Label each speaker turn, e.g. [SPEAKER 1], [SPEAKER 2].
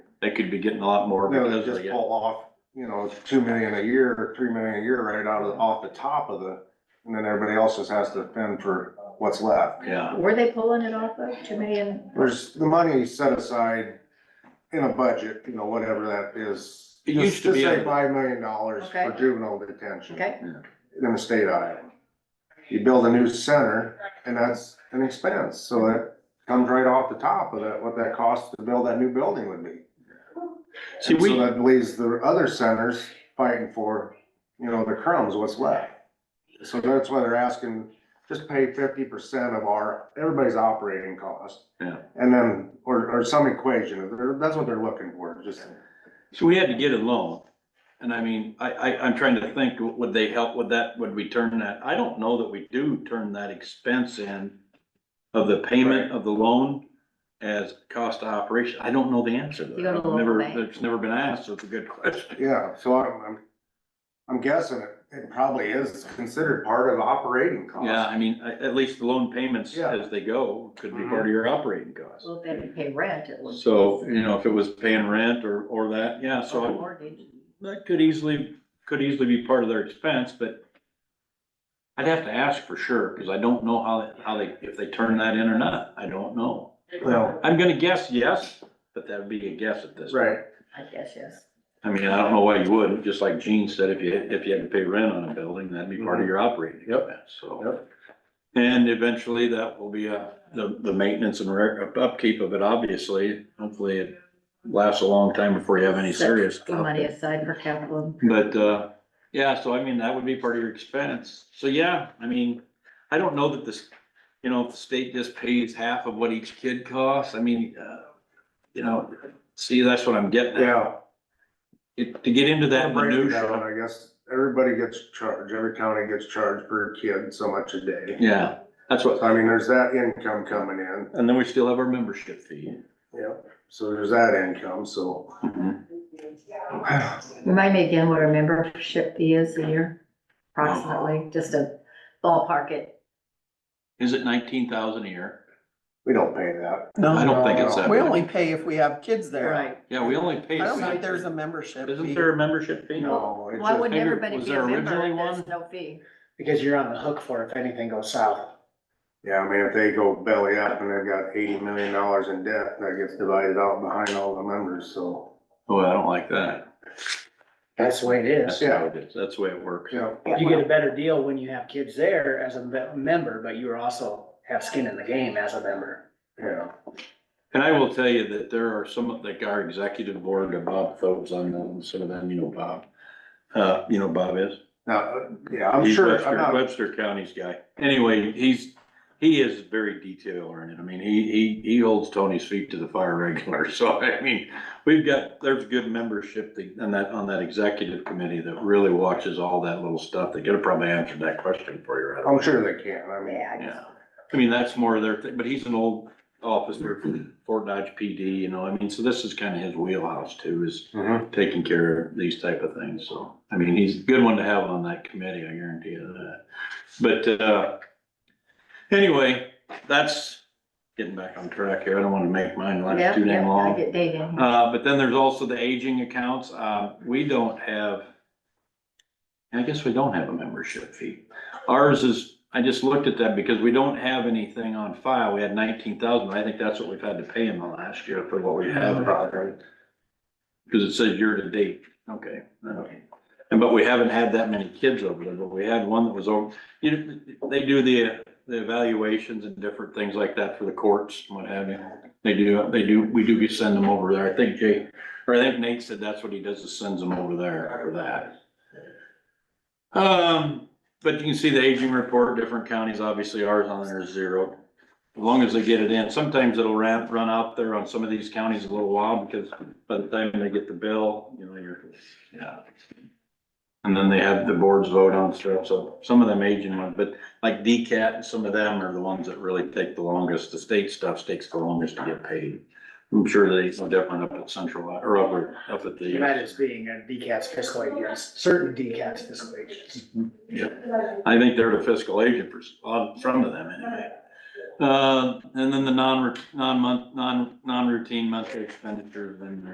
[SPEAKER 1] They could be getting a lot more
[SPEAKER 2] No, they
[SPEAKER 1] because
[SPEAKER 2] just
[SPEAKER 1] they get,
[SPEAKER 2] pull off, you know, it's two million a year, or three million a year right out of, off the top of the, and then everybody else just has to fend for what's left.
[SPEAKER 1] yeah,
[SPEAKER 3] Were they pulling it off of two million?
[SPEAKER 2] There's the money set aside in a budget, you know, whatever that is.
[SPEAKER 1] It
[SPEAKER 2] Just-
[SPEAKER 1] used to be
[SPEAKER 2] Just
[SPEAKER 1] a-
[SPEAKER 2] say five million dollars for
[SPEAKER 3] Okay.
[SPEAKER 2] juvenile detention.
[SPEAKER 3] Okay,
[SPEAKER 2] in the state of Iowa. You build a new center and that's an expense, so that comes right off the top of that, what that cost to build that new building would be.
[SPEAKER 1] See, we-
[SPEAKER 2] So that leaves the other centers fighting for, you know, the crumbs, what's left. So that's why they're asking, just pay fifty percent of our, everybody's operating cost.
[SPEAKER 1] Yeah.
[SPEAKER 2] And then, or, or some equation, They're- that's what they're looking for, just,
[SPEAKER 1] so we had to get a loan. And I mean, I, I, I'm trying to think, would they help with that? Would we turn that? I don't know that we do turn that expense in of the payment of the loan as cost of operation. I don't know the answer to
[SPEAKER 3] You go to
[SPEAKER 1] that.
[SPEAKER 3] the local
[SPEAKER 1] Never,
[SPEAKER 3] bank.
[SPEAKER 1] it's never been asked, so it's a good question.
[SPEAKER 2] yeah, so I'm, I'm, I'm guessing it, it probably is considered part of operating cost.
[SPEAKER 1] Yeah, I mean, at, at least the loan payments
[SPEAKER 2] Yeah.
[SPEAKER 1] as they go could be
[SPEAKER 2] Mhm.
[SPEAKER 1] part of your operating costs.
[SPEAKER 3] well, if they didn't pay rent, it was.
[SPEAKER 1] So, you know, if it was paying rent or, or that, yeah,
[SPEAKER 3] Or the
[SPEAKER 1] so
[SPEAKER 3] mortgage.
[SPEAKER 1] that could easily, could easily be part of their expense, but I'd have to ask for sure, because I don't know how, how they, if they turn that in or not. I don't know.
[SPEAKER 2] Well,
[SPEAKER 1] I'm gonna guess yes, but that'd be a guess at this. point.
[SPEAKER 2] right,
[SPEAKER 3] I guess, yes.
[SPEAKER 1] I mean, I don't know why you wouldn't, just like Gene said, if you, if you had to pay rent on a building, that'd be part of your operating expense, so.
[SPEAKER 2] Mm-hmm. Yep.
[SPEAKER 1] And eventually that will be uh the, the maintenance and re- upkeep of it, obviously, hopefully it lasts a long time before you have any
[SPEAKER 3] Set
[SPEAKER 1] serious
[SPEAKER 3] the Money
[SPEAKER 1] stuff.
[SPEAKER 3] aside for capital.
[SPEAKER 1] But, uh, yeah, so I mean, that would be part of your expense, so yeah, I mean, I don't know that this, you know, if the state just pays half of what each kid costs, I mean, uh, you know, see, that's what I'm getting at
[SPEAKER 2] yeah.
[SPEAKER 1] it, to get into that
[SPEAKER 2] Break it down,
[SPEAKER 1] minutia.
[SPEAKER 2] I guess everybody gets charged, every county gets charged per kid so much a day.
[SPEAKER 1] Yeah, that's
[SPEAKER 2] So,
[SPEAKER 1] what,
[SPEAKER 2] I mean, there's that income coming in,
[SPEAKER 1] and then we still have our membership fee.
[SPEAKER 2] yeah, so there's that income, so.
[SPEAKER 3] Remind me again what our membership fee is a year
[SPEAKER 1] Oh.
[SPEAKER 3] approximately, just a ballpark it.
[SPEAKER 1] Is it nineteen thousand a year?
[SPEAKER 2] We don't pay that.
[SPEAKER 1] I
[SPEAKER 4] No,
[SPEAKER 1] don't think it's that
[SPEAKER 4] we
[SPEAKER 1] much.
[SPEAKER 4] only pay if we have kids there.
[SPEAKER 1] Yeah, we only pay.
[SPEAKER 4] I don't think
[SPEAKER 1] fee.
[SPEAKER 4] there's a membership
[SPEAKER 1] Isn't
[SPEAKER 4] fee.
[SPEAKER 1] there a membership fee?
[SPEAKER 2] No, it's
[SPEAKER 3] Why
[SPEAKER 2] just,
[SPEAKER 3] wouldn't
[SPEAKER 1] figured-
[SPEAKER 3] everybody
[SPEAKER 1] was
[SPEAKER 3] be
[SPEAKER 1] there
[SPEAKER 3] a member
[SPEAKER 1] originally
[SPEAKER 3] if
[SPEAKER 1] one?
[SPEAKER 3] there's no fee?
[SPEAKER 5] Because you're on the hook for if anything goes south.
[SPEAKER 2] yeah, I mean, if they go belly up and they've got eighty million dollars in debt, that gets divided out behind all the members, so.
[SPEAKER 1] Oh, I don't like that.
[SPEAKER 5] That's the way it
[SPEAKER 1] That's
[SPEAKER 5] is.
[SPEAKER 1] how it is. That's the way it works.
[SPEAKER 2] Yeah,
[SPEAKER 5] You get a better deal when you have kids there as a me- member, but you also have skin in the game as a member.
[SPEAKER 2] yeah.
[SPEAKER 1] And I will tell you that there are some, of- like our executive board, and Bob Phillips on them, some of them, you know, Bob. Uh, you know, Bob is.
[SPEAKER 2] Now, uh, yeah, I'm
[SPEAKER 1] He's
[SPEAKER 2] sure,
[SPEAKER 1] Webster-
[SPEAKER 2] I'm not,
[SPEAKER 1] Webster County's guy. Anyway, he's, he is very detail oriented. I mean, he, he, he holds Tony's feet to the fire regular. So I mean, we've got, there's good membership that- on that, on that executive committee that really watches all that little stuff. They could have probably answered that question for you. right away.
[SPEAKER 2] I'm sure they can, I mean.
[SPEAKER 3] Yeah, I guess.
[SPEAKER 1] Yeah. I mean, that's more their thing, but he's an old officer from Fort Dodge PD, you know, I mean, so this is kind of his wheelhouse too, is
[SPEAKER 2] Mhm.
[SPEAKER 1] taking care of these type of things, so, I mean, he's a good one to have on that committee, I guarantee you that. But, uh, anyway, that's getting back on track here, I don't wanna make mine last
[SPEAKER 3] Yep,
[SPEAKER 1] too
[SPEAKER 3] yep,
[SPEAKER 1] damn
[SPEAKER 3] I
[SPEAKER 1] long.
[SPEAKER 3] get Dave in here.
[SPEAKER 1] Uh, but then there's also the aging accounts, uh, we don't have, I guess we don't have a membership fee. Ours is, I just looked at that because we don't have anything on file, we had nineteen thousand, I think that's what we've had to pay in the last year for what we have. Cause it says year to date, okay. okay. And but we haven't had that many kids over there, but we had one that was over, you know, they do the, the evaluations and different things like that for the courts and what have you. They do, they do, we do send them over there, I think Jay, or I think Nate said that's what he does, is sends them over there for that. Um, but you can see the aging report, different counties, obviously ours on there is zero. As long as they get it in, sometimes it'll run, run out there on some of these counties a little while, because by the time they get the bill, you know, you're, yeah. And then they have the boards vote on stuff, so some of them aging one, but like DCAT and some of them are the ones that really take the longest. The state stuff takes the longest to get paid. I'm sure they, it's no different up at Central, or over, up at the.
[SPEAKER 5] That is being a DCAT's fiscal agent, certain DCAT's fiscal agents.
[SPEAKER 1] Yeah, I think they're the fiscal agent for, on front of them anyway. Uh, and then the non, non-month, non, non-routine monthly expenditures and